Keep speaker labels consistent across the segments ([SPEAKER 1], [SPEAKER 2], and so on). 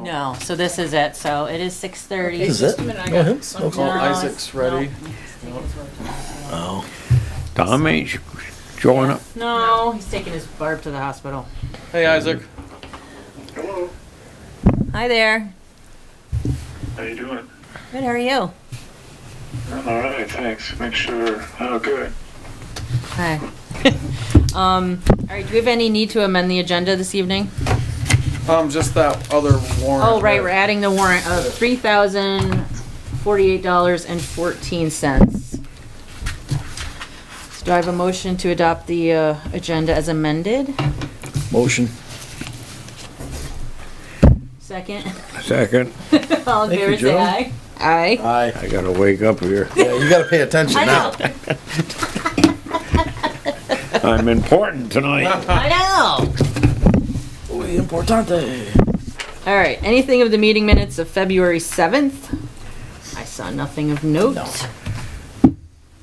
[SPEAKER 1] No, so this is it, so it is six thirty.
[SPEAKER 2] This is it?
[SPEAKER 3] Just a minute, I
[SPEAKER 2] Go ahead.
[SPEAKER 3] got some-
[SPEAKER 2] Okay.
[SPEAKER 1] No,
[SPEAKER 4] Well,
[SPEAKER 1] it's-
[SPEAKER 4] Isaac's ready.
[SPEAKER 1] no.
[SPEAKER 2] Oh.
[SPEAKER 5] Tom ain't showing up.
[SPEAKER 1] No, he's taking his Barb to the hospital.
[SPEAKER 4] Hey, Isaac.
[SPEAKER 1] Hi there.
[SPEAKER 6] How you doing?
[SPEAKER 1] Good, how are you?
[SPEAKER 6] I'm all right, thanks. Make sure. Oh, good.
[SPEAKER 1] Hi. Um, all right, do we have any need to amend the agenda this evening?
[SPEAKER 4] Um, just that other warrant.
[SPEAKER 1] Oh, right,
[SPEAKER 4] that-
[SPEAKER 1] we're adding the warrant of three thousand forty-eight dollars and fourteen cents. So do I have a motion to adopt the, uh, agenda as amended?
[SPEAKER 2] Motion.
[SPEAKER 1] Second,
[SPEAKER 5] Second,
[SPEAKER 1] all in
[SPEAKER 2] Thank you,
[SPEAKER 1] favor, say
[SPEAKER 2] Joe.
[SPEAKER 1] aye. Aye.
[SPEAKER 2] Aye.
[SPEAKER 5] I gotta wake up here.
[SPEAKER 2] Yeah, you gotta pay attention
[SPEAKER 1] I
[SPEAKER 2] now.
[SPEAKER 1] know,
[SPEAKER 5] I'm important tonight.
[SPEAKER 1] I know.
[SPEAKER 2] Muy importante.
[SPEAKER 1] All right, anything of the meeting minutes of February seventh? I saw nothing of note.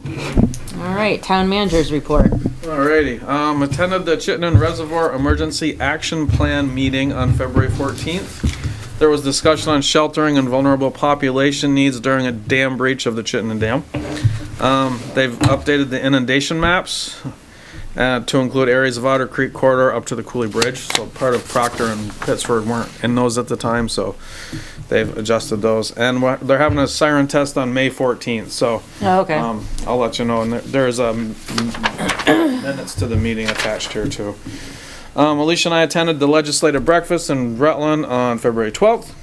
[SPEAKER 1] All right, town managers report.
[SPEAKER 4] Alrighty, um, attended the Chittenden Reservoir Emergency Action Plan meeting on February fourteenth. There was discussion on sheltering and vulnerable population needs during a dam breach of the Chittenden Dam. Um, they've updated the inundation maps, uh, to include areas of Otter Creek corridor up to the Cooley Bridge, so part of Proctor and Pittsford weren't in those at the time, so they've adjusted those. And we're- they're having a siren test on May fourteenth, so,
[SPEAKER 1] Oh, Okay,
[SPEAKER 4] um, I'll let you know, and there- there's, um, minutes to the meeting attached here too. Um, Alicia and I attended the legislative breakfast in Rutland on February twelfth.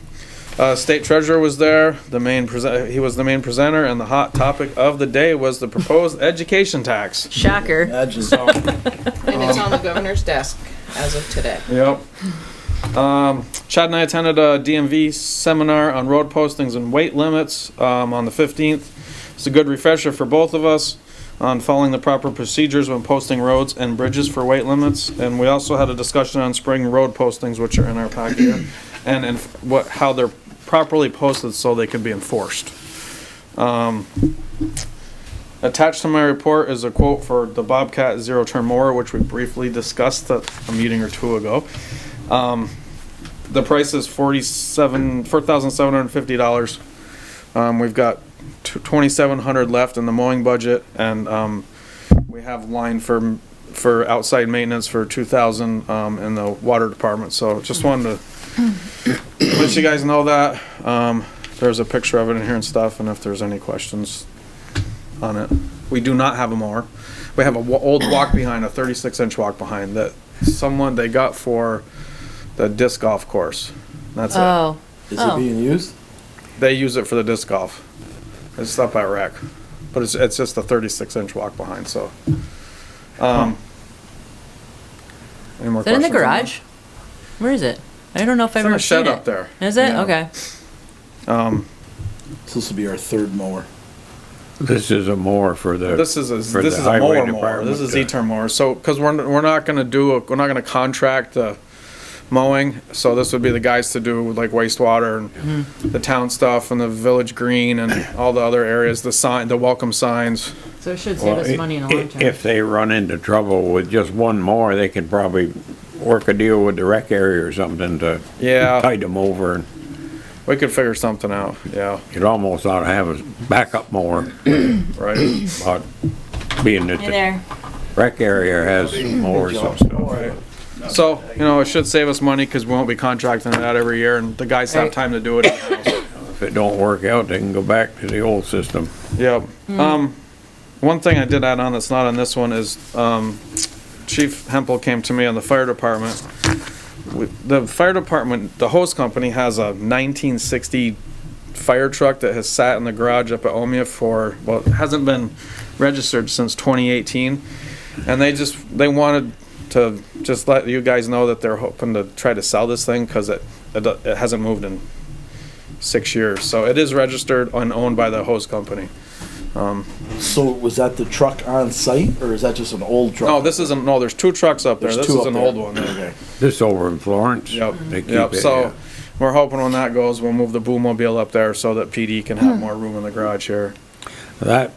[SPEAKER 4] Uh, state treasurer was there, the main present, he was the main presenter, and the hot topic of the day was the proposed education tax.
[SPEAKER 1] shocker.
[SPEAKER 2] Imagine.
[SPEAKER 3] And it's on the governor's desk as of today.
[SPEAKER 4] Yep. Um, Chad and I attended a DMV seminar on road postings and weight limits um, on the 15th. It's a good refresher for both of us on following the proper procedures when posting roads and bridges for weight limits. And we also had a discussion on spring road postings, which are in our packet here, and, and what, how they're properly posted so they can be enforced. Attached to my report is a quote for the Bobcat zero turn mower, which we briefly discussed at a meeting or two ago. Um, the price is forty-seven, four thousand seven hundred and fifty dollars. Um, we've got twenty-seven hundred left in the mowing budget, and um, we have line for for outside maintenance for two thousand um, in the water department. So just wanted to let you guys know that. Um, there's a picture of it in here and stuff, and if there's any questions, on it. We do not have a mower. We have a wa- old walk behind, a thirty-six inch walk behind that someone they got for the disc golf course. That's it.
[SPEAKER 1] Oh,
[SPEAKER 2] Is
[SPEAKER 1] Oh.
[SPEAKER 2] it being used?
[SPEAKER 4] They use it for the disc golf. It's up by rack, but it's it's just a thirty-six inch walk behind. So, um, any more
[SPEAKER 1] is that in the
[SPEAKER 4] questions on that?
[SPEAKER 1] garage? Where is it? I don't know if
[SPEAKER 4] It's
[SPEAKER 1] I've
[SPEAKER 4] in a
[SPEAKER 1] ever seen
[SPEAKER 4] shed up
[SPEAKER 1] it.
[SPEAKER 4] there.
[SPEAKER 1] Is it?
[SPEAKER 4] Yeah.
[SPEAKER 1] Okay.
[SPEAKER 4] Um,
[SPEAKER 2] So This will be our third mower.
[SPEAKER 5] This is a more for the.
[SPEAKER 4] This is a,
[SPEAKER 5] for
[SPEAKER 4] this
[SPEAKER 5] the
[SPEAKER 4] is a
[SPEAKER 5] highway
[SPEAKER 4] mower mower. This
[SPEAKER 5] department
[SPEAKER 4] is
[SPEAKER 5] to-
[SPEAKER 4] E-turn mower. So, because we're, we're not gonna do, a- we're not gonna contract the mowing. So this would be the guys to do like wastewater and
[SPEAKER 1] Mm-hmm.
[SPEAKER 4] the town stuff and the village green and all the other areas, the sign, the welcome signs.
[SPEAKER 1] So it should save
[SPEAKER 5] Well,
[SPEAKER 1] us money in the long
[SPEAKER 5] i-
[SPEAKER 1] term.
[SPEAKER 5] If they run into trouble with just one more, they could probably work a deal with the rec area or something to
[SPEAKER 4] Yeah,
[SPEAKER 5] tide them over. and
[SPEAKER 4] we could figure something out. Yeah,
[SPEAKER 5] You'd almost ought to have a backup more,
[SPEAKER 4] right.
[SPEAKER 5] but being that
[SPEAKER 1] Hey
[SPEAKER 5] the
[SPEAKER 1] there.
[SPEAKER 5] rec area has mowers and stuff.
[SPEAKER 4] So, you know, it should save us money because we won't be contracting it out every year and the guys have
[SPEAKER 1] Right.
[SPEAKER 4] time to do it. in-house.
[SPEAKER 5] If it don't work out, they can go back to the old system.
[SPEAKER 4] Yep. Um, one thing I did add on that's not on this one is, um, Chief Hempel came to me on the fire department. We- The fire department, the hose company has a nineteen sixty fire truck that has sat in the garage up at Omea for, well, it hasn't been registered since twenty eighteen. And they just, they wanted to just let you guys know that they're hoping to try to sell this thing, cause it, it do- it hasn't moved in six years. So it is registered and owned by the hose company.
[SPEAKER 2] So was that the truck on site or is that just an old truck?
[SPEAKER 4] No, this isn't, no, there's two trucks up there.
[SPEAKER 2] There's
[SPEAKER 4] This
[SPEAKER 2] two
[SPEAKER 4] is
[SPEAKER 2] up
[SPEAKER 4] an
[SPEAKER 2] there.
[SPEAKER 4] old one.
[SPEAKER 2] Okay.
[SPEAKER 5] This over in Florence.
[SPEAKER 4] Yep,
[SPEAKER 5] They keep
[SPEAKER 4] yep,
[SPEAKER 5] it, yeah.
[SPEAKER 4] so we're hoping when that goes, we'll move the boom mobile up there so that PD can have more room in the garage here.
[SPEAKER 5] That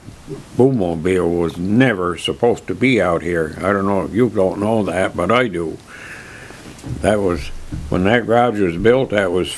[SPEAKER 5] boommobile was never supposed to be out here. I don't know if you don't know that, but I do. That was, when that garage was built, that was